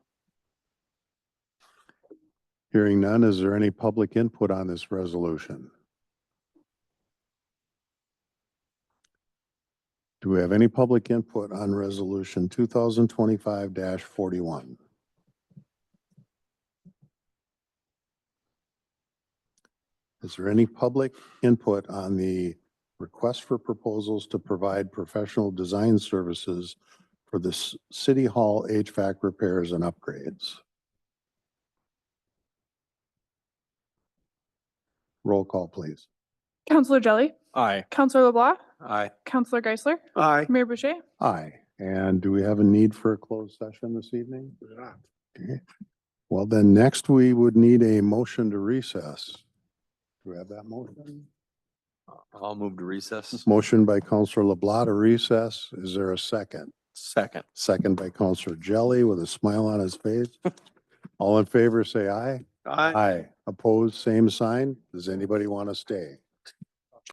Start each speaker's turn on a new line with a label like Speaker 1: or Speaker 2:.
Speaker 1: Hearing none, is there any public input on this resolution? Do we have any public input on resolution two thousand twenty-five forty-one? Is there any public input on the request for proposals to provide professional design services for the s- city hall HVAC repairs and upgrades? Roll call, please.
Speaker 2: Counselor Jelly,
Speaker 3: Aye.
Speaker 2: Counselor LeBlanc,
Speaker 3: Aye.
Speaker 2: Counselor Geisler,
Speaker 3: Aye.
Speaker 2: Mayor Boucher.
Speaker 1: Aye. And do we have a need for a closed session this evening? Okay. Well, then next we would need a motion to recess. Do we have that motion?
Speaker 3: I'll move to recess.
Speaker 1: Motion by Counselor LeBlanc to recess. Is there a second?
Speaker 3: Second.
Speaker 1: Second by Counselor Jelly with a smile on his face. All in favor, say aye. Aye. Opposed, same sign. Does anybody want to stay?